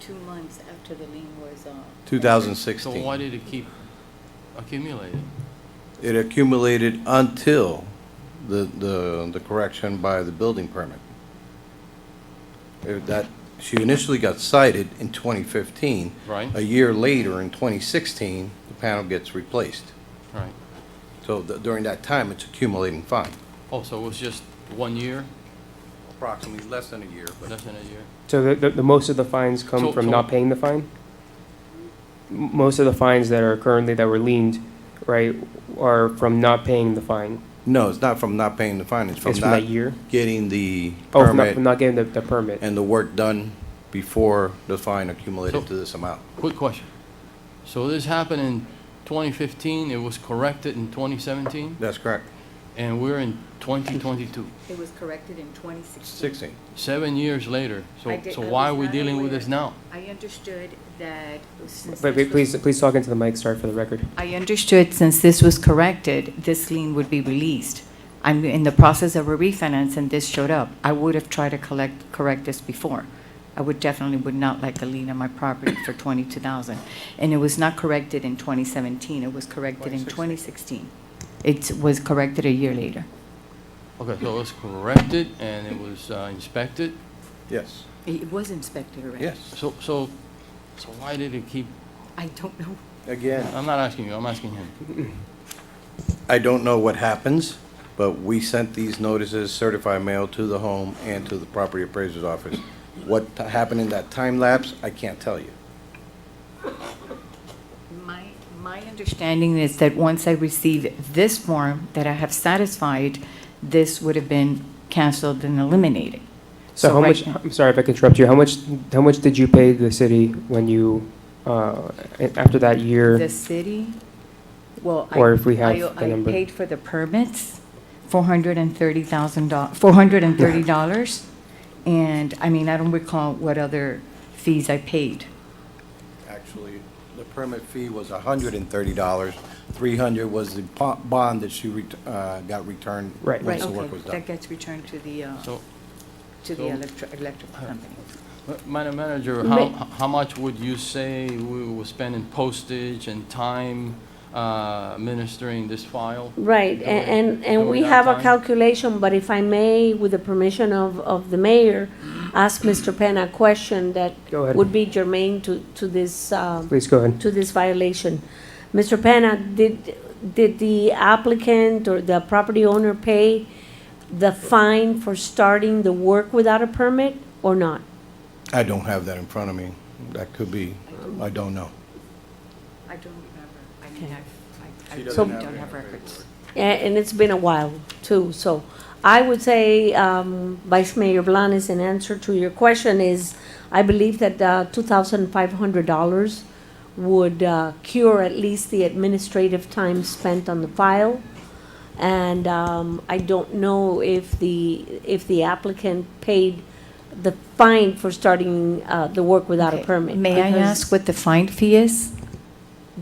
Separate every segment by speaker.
Speaker 1: two months after the lien was uh, on.
Speaker 2: 2016.
Speaker 3: So why did it keep accumulating?
Speaker 2: It accumulated until the, the, the correction by the building permit. Uh, That, she initially got cited in 2015.
Speaker 3: Right.
Speaker 2: A year later, in 2016, the panel gets replaced.
Speaker 3: Right.
Speaker 2: So th- during that time, it's accumulating fine.
Speaker 3: Oh, so it was just one year,
Speaker 2: Approximately less than a year,
Speaker 3: less than a year?
Speaker 4: So the, the, the most of the fines
Speaker 3: So-
Speaker 4: come from
Speaker 3: so-
Speaker 4: not paying the fine? M- Most of the fines that are currently, that were leaned, right, are from not paying the fine?
Speaker 2: No, it's not from not paying the fine, it's from
Speaker 4: It's from that
Speaker 2: not
Speaker 4: year?
Speaker 2: getting the
Speaker 4: Oh, from not, from
Speaker 2: permit
Speaker 4: not getting the, the permit?
Speaker 2: and the work done before the fine accumulated
Speaker 3: So-
Speaker 2: to this amount.
Speaker 3: Quick question. So this happened in 2015, it was corrected in 2017,
Speaker 2: That's correct.
Speaker 3: and we're in 2022,
Speaker 1: It was corrected in 2016.
Speaker 2: 16.
Speaker 3: seven years later. So,
Speaker 1: I did-
Speaker 3: so
Speaker 1: I
Speaker 3: why are
Speaker 1: was
Speaker 3: we
Speaker 1: not
Speaker 3: dealing with
Speaker 1: aware.
Speaker 3: this now?
Speaker 1: I understood that since.
Speaker 4: Wait,
Speaker 1: this
Speaker 4: wait,
Speaker 1: was-
Speaker 4: please, please talk into the mic, sorry for the record.
Speaker 1: I understood since this was corrected, this lien would be released. I'm in the process of a refinance and this showed up. I would have tried to collect, correct this before. I would definitely would not like a lien on my property for twenty-two thousand. And it was not corrected in twenty seventeen, it was corrected in twenty sixteen. It was corrected a year later.
Speaker 3: Okay, so it was corrected and it was uh, inspected.
Speaker 2: Yes.
Speaker 1: It was inspected already.
Speaker 2: Yes.
Speaker 3: So, so, so why did it keep,
Speaker 1: I don't know.
Speaker 2: Again,
Speaker 3: I'm not asking you, I'm asking him.
Speaker 2: I don't know what happens, but we sent these notices certified mail to the home and to the property appraiser's office. What t- happened in that time lapse, I can't tell you.
Speaker 1: My, my understanding is that once I received this form that I have satisfied, this would have been canceled and eliminated.
Speaker 4: So how
Speaker 1: right
Speaker 4: much,
Speaker 1: now-
Speaker 4: I'm sorry if I could interrupt you, how much, how much did you pay the city when you, uh, a- after that
Speaker 1: The
Speaker 4: year?
Speaker 1: city, well, I.
Speaker 4: Or if we have
Speaker 1: I-
Speaker 4: the number.
Speaker 1: I paid for the permits, four hundred and thirty thousand dollars, four hundred and thirty dollars. And, I mean, I don't recall what other fees I paid.
Speaker 2: Actually, the permit fee was hundred and thirty dollars. Three hundred was the po- bond that she ret- uh, got returned
Speaker 4: Right.
Speaker 2: once the
Speaker 1: Okay,
Speaker 2: work was done.
Speaker 1: That gets returned to the, uh,
Speaker 3: So,
Speaker 1: to the
Speaker 3: so-
Speaker 1: electric, electrical
Speaker 2: uh,
Speaker 1: company.
Speaker 3: Ma- Madam Manager,
Speaker 4: Ma-
Speaker 3: how, how much would you say we were spending postage and time uh, administering this file?
Speaker 5: Right,
Speaker 3: Go
Speaker 5: a-
Speaker 3: ahead.
Speaker 5: and,
Speaker 3: Go
Speaker 5: and we
Speaker 3: ahead,
Speaker 5: have a
Speaker 3: Downtime.
Speaker 5: calculation, but if I may, with the permission of, of the mayor, ask Mr. Penn a question that
Speaker 4: Go ahead.
Speaker 5: would be germane to, to this, um,
Speaker 4: Please go ahead.
Speaker 5: to this violation. Mr. Penna, did, did the applicant or the property owner pay the fine for starting the work without a permit or not?
Speaker 2: I don't have that in front of me. That could be, I don't know.
Speaker 1: I don't remember. I mean, I, I, I
Speaker 2: She
Speaker 1: don't
Speaker 2: doesn't have it in
Speaker 1: have
Speaker 2: her
Speaker 1: records.
Speaker 5: A- And it's been a while, too, so I would say, um, Vice Mayor Blanes, in answer to your question is, I believe that uh, $2,500 would uh, cure at least the administrative time spent on the file. And um, I don't know if the, if the applicant paid the fine for starting uh, the work without a
Speaker 1: Okay.
Speaker 5: permit.
Speaker 1: May I
Speaker 5: because
Speaker 1: ask what the fine fee is?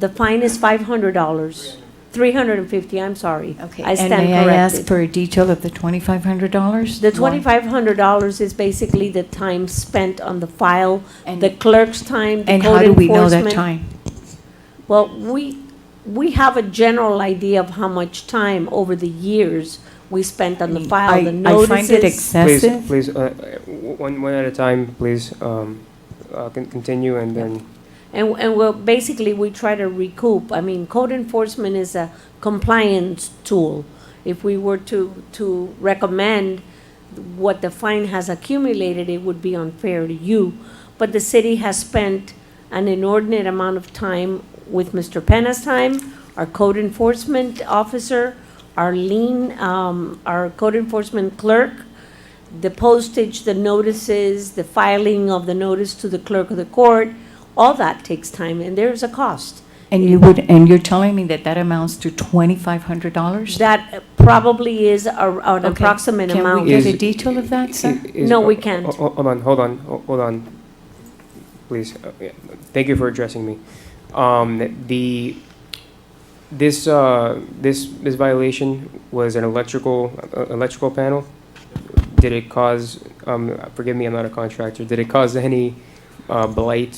Speaker 5: The fine is $500, 350, I'm sorry.
Speaker 1: Okay,
Speaker 5: I
Speaker 1: and
Speaker 5: stand
Speaker 1: may I ask
Speaker 5: corrected.
Speaker 1: for a detail of the twenty-five hundred dollars?
Speaker 5: The twenty-five hundred dollars is basically the time spent on the file, the clerk's time, the
Speaker 1: And how
Speaker 5: code
Speaker 1: do we know that
Speaker 5: enforcement.
Speaker 1: time?
Speaker 5: Well, we, we have a general idea of how much time over the years we spent
Speaker 1: Mm.
Speaker 5: on the file, the
Speaker 1: I- I find it
Speaker 5: notices.
Speaker 4: Please,
Speaker 1: excessive.
Speaker 4: please, uh, w- one, one at a time, please, um, uh, con- continue and then,
Speaker 5: And, and we're, basically, we try to recoup. I mean, code enforcement is a compliance tool. If we were to, to recommend what the fine has accumulated, it would be unfair to you. But the city has spent an inordinate amount of time with Mr. Penna's time, our code enforcement officer, our lien, um, our code enforcement clerk, the postage, the notices, the filing of the notice to the clerk of the court, all that takes time, and there's a cost.
Speaker 1: And you would, and you're telling me that that amounts to twenty-five hundred dollars?
Speaker 5: That probably is a- an approximate
Speaker 1: Can
Speaker 5: amount.
Speaker 1: we get Oh, a
Speaker 4: Is-
Speaker 1: detail of that, sir?
Speaker 4: Is-
Speaker 5: No, we
Speaker 4: ho-
Speaker 5: can't.
Speaker 4: ho- Oh, Hold on, hold on, ho- hold on. Please, uh, yeah, thank you for addressing me. Um, the, this, uh, this, this violation was an electrical, uh, electrical panel? Did it cause, um, forgive me, I'm not a contractor, did it cause any uh, blight